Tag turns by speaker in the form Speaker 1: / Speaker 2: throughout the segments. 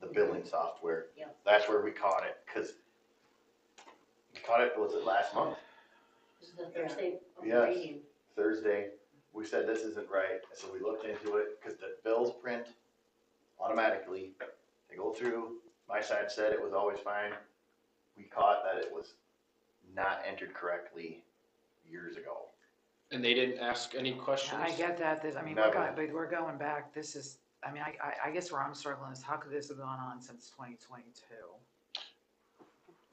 Speaker 1: the billing software.
Speaker 2: Yeah.
Speaker 1: That's where we caught it, cause we caught it, was it last month?
Speaker 2: This is the Thursday of
Speaker 1: Yes.
Speaker 2: reading.
Speaker 1: Thursday, we said this isn't right, and so we looked into it, cause the bills print automatically. They go through, my side said it was always fine, we caught that it was not entered correctly years ago.
Speaker 3: And they didn't ask any questions?
Speaker 4: I get that, that, I mean, we're
Speaker 1: Never.
Speaker 4: going, but we're going back, this is, I mean, I, I, I guess where I'm struggling is how could this have gone on since twenty twenty-two?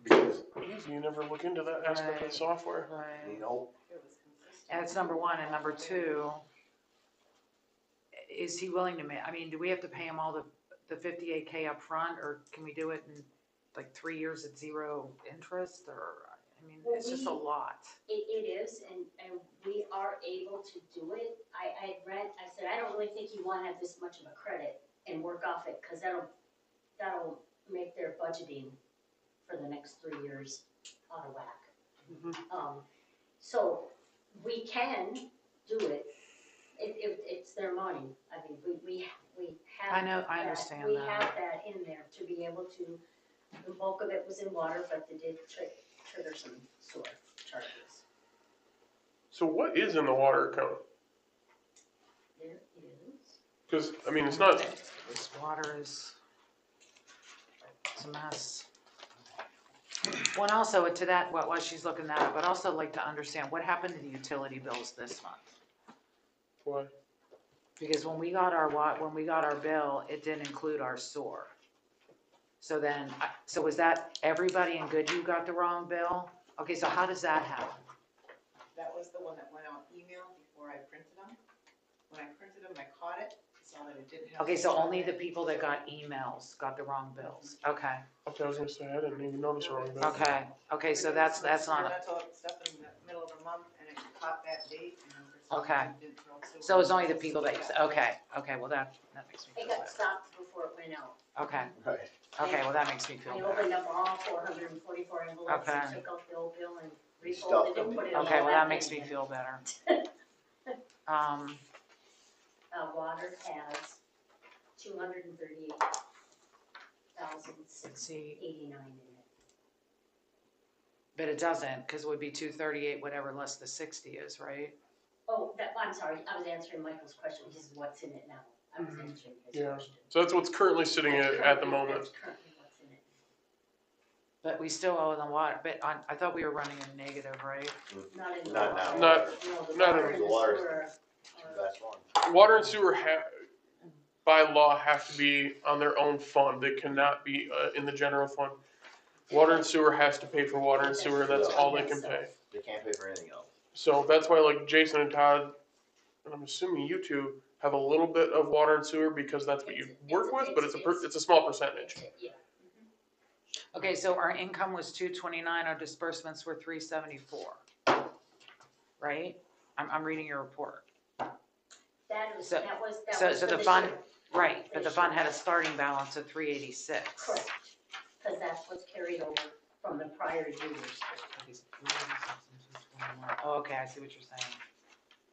Speaker 1: Because,
Speaker 5: Because you never look into that aspect of
Speaker 4: Right.
Speaker 5: the software.
Speaker 1: you
Speaker 4: Right.
Speaker 1: know,
Speaker 4: And it's number one, and number two, is he willing to ma, I mean, do we have to pay him all the, the fifty-eight K upfront, or can we do it in like three years at zero interest, or, I mean,
Speaker 2: Well,
Speaker 4: it's just a
Speaker 2: we-
Speaker 4: lot.
Speaker 2: It, it is, and, and we are able to do it. I, I read, I said, I don't really think you wanna have this much of a credit and work off it, cause that'll, that'll make their budgeting for the next three years out of whack.
Speaker 4: Mm-hmm.
Speaker 2: Um, so we can do it. It, it, it's their money. I mean, we, we, we have.
Speaker 4: I know, I
Speaker 2: that-
Speaker 4: understand
Speaker 2: We
Speaker 4: that.
Speaker 2: have that in there to be able to, the bulk of it was in water, but they did tri- trigger some sewer charges.
Speaker 5: So what is in the water account?
Speaker 2: There is.
Speaker 5: Because I mean, it's not.
Speaker 4: This water is, it's a mess. Well, and also to that, what, while she's looking that up, but also like to understand what happened to the utility bills this month?
Speaker 5: Why?
Speaker 4: Because when we got our wa, when we got our bill, it didn't include our sewer. So then, I- so was that everybody in Goodhue got the wrong bill? Okay, so how does that happen?
Speaker 6: That was the one that went out email before I printed them. When I printed them, I caught it, saw that it didn't have.
Speaker 4: Okay, so
Speaker 6: sewer
Speaker 4: only
Speaker 6: in
Speaker 4: the
Speaker 6: it.
Speaker 4: people that got emails got the wrong bills, okay,
Speaker 5: Okay, I was gonna say I didn't even notice wrong. But
Speaker 4: okay, okay, so that's, that's not, a-
Speaker 6: Experimental stuff in the middle of the month and it caught that date and. for some
Speaker 4: Okay.
Speaker 6: reason didn't throw sewer.
Speaker 4: so it's only the people that, okay, okay, well, that, that makes me
Speaker 2: It
Speaker 4: feel
Speaker 2: got
Speaker 4: better.
Speaker 2: stopped before it went out.
Speaker 4: Okay,
Speaker 1: right,
Speaker 4: okay, well, that makes me feel
Speaker 2: I
Speaker 4: better.
Speaker 2: opened up all four hundred and forty-four envelopes and
Speaker 4: Okay.
Speaker 2: took out the old bill and
Speaker 1: Stuffed
Speaker 2: refolded
Speaker 1: them.
Speaker 2: and put it all back in.
Speaker 4: Okay, well, that makes me
Speaker 2: again.
Speaker 4: feel better. Um,
Speaker 2: Uh, water has two hundred and thirty-eight thousand
Speaker 4: let's
Speaker 2: six
Speaker 4: see,
Speaker 2: eighty-nine in it.
Speaker 4: but it doesn't, because it would be two thirty-eight, whatever less the sixty is, right?
Speaker 2: Oh, that, I'm sorry, I was answering Michael's question, which is what's in it now. I was
Speaker 4: Mhm.
Speaker 2: answering his
Speaker 5: Yeah.
Speaker 2: question.
Speaker 5: So that's what's currently sitting at, at the
Speaker 2: Currently-
Speaker 5: moment.
Speaker 2: That's currently what's in it.
Speaker 4: But we still owe them water, but I, I thought we were running a negative, right?
Speaker 2: Not in the
Speaker 1: not now.
Speaker 2: water.
Speaker 5: Not-
Speaker 2: No, the
Speaker 5: not in
Speaker 2: water and
Speaker 1: the
Speaker 2: the
Speaker 1: water.
Speaker 2: sewer are-
Speaker 1: that's one.
Speaker 5: Water and sewer ha- by law have to be on their own fund. They cannot be uh, in the general fund. Water and sewer has to pay for water and sewer. That's all they can pay.
Speaker 1: They can't pay for anything else.
Speaker 5: So that's why like Jason and Todd, and I'm assuming you two have a little bit of water and sewer because that's what you
Speaker 2: It's-
Speaker 5: work
Speaker 2: it's-
Speaker 5: with, but it's a,
Speaker 2: it's-
Speaker 5: per- it's a small percentage.
Speaker 2: Yeah,
Speaker 4: Okay, so our income was two twenty-nine, our disbursements were three seventy-four. Right? I'm, I'm reading your report.
Speaker 2: that was,
Speaker 4: So-
Speaker 2: that was, that
Speaker 4: so-
Speaker 2: was
Speaker 4: so
Speaker 2: for
Speaker 4: the
Speaker 2: the
Speaker 4: fund-
Speaker 2: sewer.
Speaker 4: Right, but the fund had a starting balance of three eighty-six.
Speaker 2: Correct, because that's what's carried over from the prior years.
Speaker 4: Oh, okay, I see what you're saying.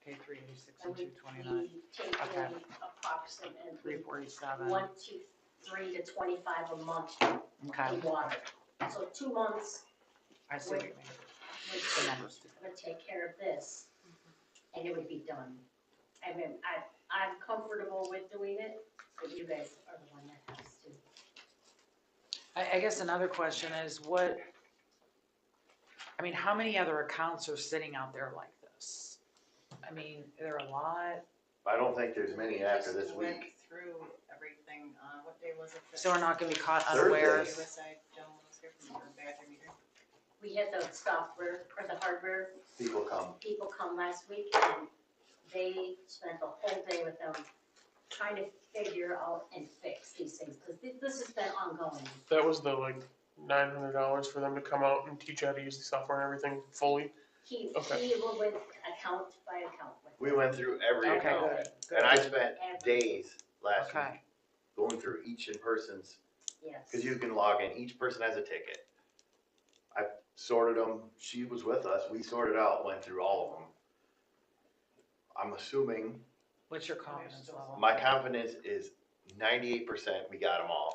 Speaker 4: Okay, three eighty-six and
Speaker 2: And we,
Speaker 4: two twenty-nine,
Speaker 2: we take in
Speaker 4: Okay. three
Speaker 2: approximately
Speaker 4: forty-seven,
Speaker 2: one, two, three to twenty-five a month
Speaker 4: okay,
Speaker 2: in water. So two months
Speaker 4: I see what you mean.
Speaker 2: would,
Speaker 4: The numbers.
Speaker 2: would take care of this, and it would be done. I mean, I, I'm comfortable with doing it, but you guys are the one that has to.
Speaker 4: I, I guess another question is what, I mean, how many other accounts are sitting out there like this? I mean, there are a lot,
Speaker 1: I don't think there's many
Speaker 6: We
Speaker 1: after
Speaker 6: just
Speaker 1: this
Speaker 6: went
Speaker 1: week.
Speaker 6: Through everything, uh, what day was it? that-
Speaker 4: so we're not gonna be caught
Speaker 1: Thursday.
Speaker 4: unawares.
Speaker 6: USA, Joan was here from the bathroom here.
Speaker 2: We had the software or the hardware
Speaker 1: People come,
Speaker 2: people come last week and they spent the whole day with them trying to figure out and fix these things, because this has been ongoing.
Speaker 5: That was the like nine hundred dollars for them to come out and teach you how to use the software and everything fully.
Speaker 2: He,
Speaker 5: Okay.
Speaker 2: he will went account by account with
Speaker 1: we went through every
Speaker 4: Okay,
Speaker 1: account.
Speaker 4: good,
Speaker 1: And I spent
Speaker 2: every,
Speaker 1: days last
Speaker 4: okay.
Speaker 1: week going through each in person's,
Speaker 2: yes.
Speaker 1: because you can log in, each person has a ticket. I sorted them, she was with us, we sorted out, went through all of them. I'm assuming,
Speaker 4: What's your confidence level?
Speaker 1: my confidence is ninety-eight percent, we got them all.